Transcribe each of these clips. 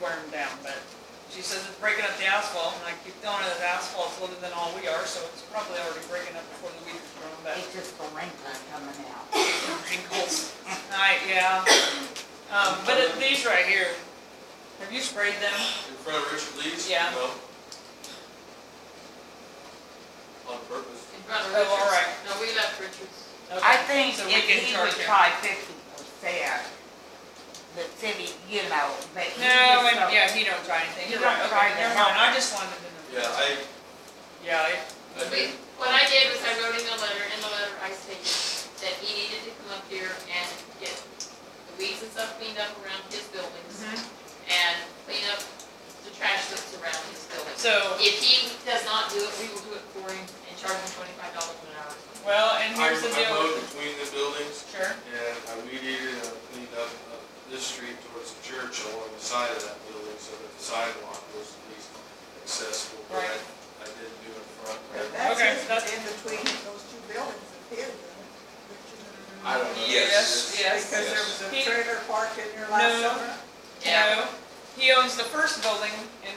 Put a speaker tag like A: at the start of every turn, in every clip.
A: wear them down, but she says it's breaking up the asphalt, and I keep telling her that asphalt's lighter than all we are, so it's probably already breaking up before the weeds grow back.
B: It's just the length of coming out.
A: Ankles, I, yeah. Um, but it- these right here, have you sprayed them?
C: In front of Richard Lee's?
A: Yeah.
C: No. On purpose.
D: In front of
A: Oh,
D: Richards.
A: all right.
D: No, we left Richards.
B: I think
A: So we
B: if
A: can
B: he
A: charge
B: would
A: him.
B: try fifty percent, the city, you know, but
A: No,
B: he just
A: and,
B: don't.
A: yeah, he don't try anything, you're
B: He don't
A: right,
B: try
A: okay, never
B: that.
A: mind, I just wanted to know.
C: Yeah, I,
A: Yeah, it-
C: I
D: We,
C: did.
D: what I did was I wrote in the letter, in the letter I stated that he needed to come up here and get the weeds and stuff cleaned up around his buildings
B: Mm-hmm.
D: and clean up the trash that's around his buildings.
A: so,
D: If he does not do it, we will do it for him and charge him twenty-five dollars an hour.
A: well, and
C: I
A: here's the
C: I
A: deal,
C: mowed between the buildings
A: sure,
C: and I weeded and I cleaned up uh, this street towards the church along the side of that building so that the sidewalk was at least accessible. But
A: Right.
C: I, I didn't do in front.
E: That's
A: Okay,
E: just
A: that's-
E: in between those two buildings and his, and
C: I don't know.
A: Yes,
E: Because
A: yes.
E: there was a
A: He-
E: trailer parked in there last
A: No.
E: summer.
A: no, he owns the first building, and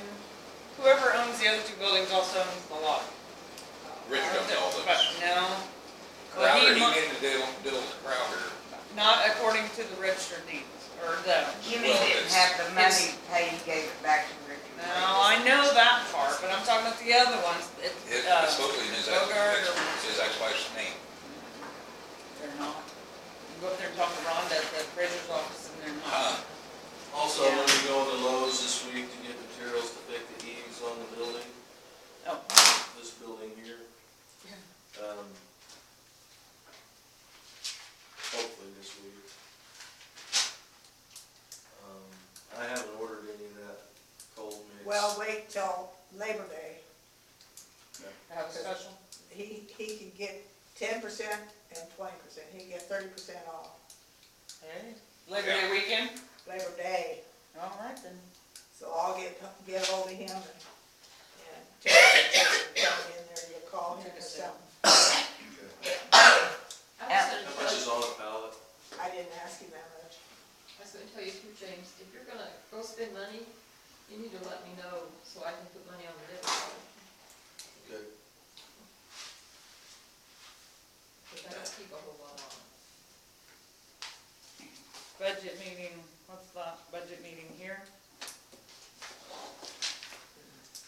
A: whoever owns the other two buildings also owns the lot.
F: Rich don't know
A: But
F: those.
A: No, Well, he
F: Crowder, he
A: mu-
F: ended up doing the Crowder.
A: not according to the registered deeds, or the,
B: Jimmy
F: Well,
B: didn't
F: it's-
B: have the
A: it's-
B: money to pay, he gave it back to Richard.
A: no, I know that part, but I'm talking about the other ones,
F: His,
A: it's,
F: his
A: uh,
F: supposedly his,
A: Bogart
F: ex-
A: or-
F: it's his ex-wife's name.
A: they're not. You Go up there and talk to Rhonda at the appraiser's office, and they're
F: Huh.
A: not.
C: Also,
A: Yeah.
C: I'm gonna be going to Lowe's this week to get materials to fix the eaves on the building,
A: Oh,
C: this building here. Um, Hopefully this week. Um, I haven't ordered any of that cold mix.
E: Well, wait till Labor Day.
A: have a special?
E: He, he can get ten percent and twenty percent. He can get thirty percent off
A: Labor Day weekend?
E: Labor Day.
A: All right then.
E: So I'll get, get hold of him and, and tell him to come in there, you call him or something.
D: I
B: Yeah.
D: was
C: How much
D: gonna tell,
C: is on a pallet?
E: I didn't ask him that much.
D: I was gonna tell you too, James, if you're gonna go spend money, you need to let me know so I can put money on the debit card.
C: Okay.
D: But I don't keep a whole lot on.
A: Budget meeting, what's that, budget meeting here?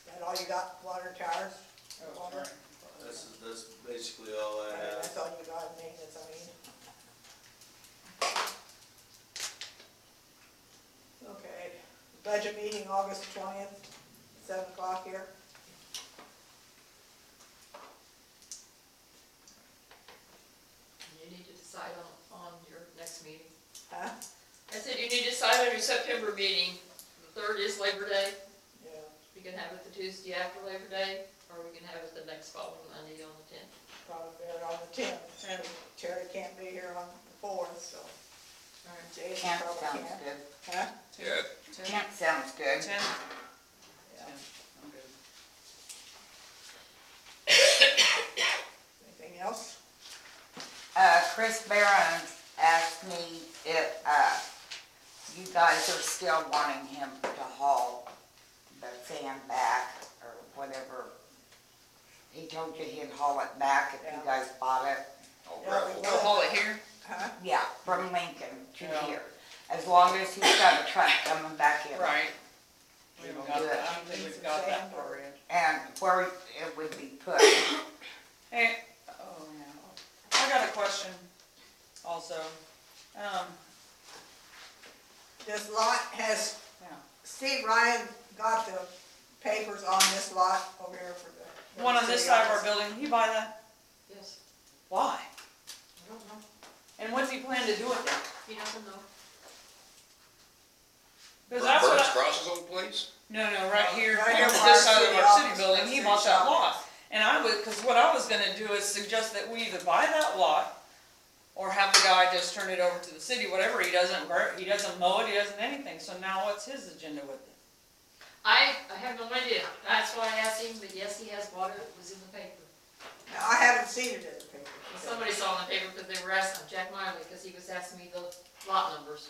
E: That all you got, water towers?
A: Oh, sorry.
C: That's, that's basically all I have.
E: That's all you got, maintenance, I mean. Okay, budget meeting, August twentieth, seven o'clock here.
D: And You need to decide on, on your next meeting.
E: Huh?
D: I said you need to decide on your September meeting. The third is Labor Day.
E: Yeah.
D: We can have it the Tuesday after Labor Day, or we can have it the next following Monday on the tenth.
E: Probably better on the
A: Yeah.
E: tenth. Terry can't be here on the fourth, so Jason
B: Tenth
E: probably
B: sounds
E: can't.
B: good.
E: Huh?
F: Yeah,
A: Ten?
B: Tenth sounds good.
A: Ten?
E: Yeah.
A: I'm good.
E: Anything else?
B: Uh, Chris Barron asked me if, uh, you guys are still wanting him to haul the sand back or whatever. He told you he'd haul it back if you
E: Yeah.
B: guys bought it.
F: old
E: Yeah, we
F: gravel.
A: We'll haul it here?
E: Huh?
B: Yeah, from Lincoln to
A: Yeah.
B: here. As long as he's got a truck coming back in.
A: Right. We haven't got that, I don't think we've got that far yet.
B: And where it would be put.
A: Hey, oh, yeah. I got a question also. Um,
E: This lot has,
A: yeah.
E: Steve Ryan got the papers on this lot over here for the.
A: One on this side of our building, you buy that?
D: Yes,
A: Why?
D: I don't know.
A: And what's he plan to do with it?
D: He doesn't know.
A: Because that's what I.
F: Burns Cross's old place?
A: No, no, right here,
E: Oh, Right
A: on
E: here
A: this
E: where our
A: side of
E: city
A: our city
E: office
A: building,
E: is,
A: he
E: city
A: bought that
E: shop.
A: lot. And I would, because what I was gonna do is suggest that we either buy that lot or have the guy just turn it over to the city, whatever, he doesn't, bur- he doesn't mow it, he doesn't anything, so now what's his agenda with it?
D: I, I have no idea. That's why I asked him, but yes, he has water. It was in the paper.
E: Now, I haven't seen it in the paper.
D: Somebody saw it in the paper because they were asking Jack Miley, because he was asking me the lot numbers.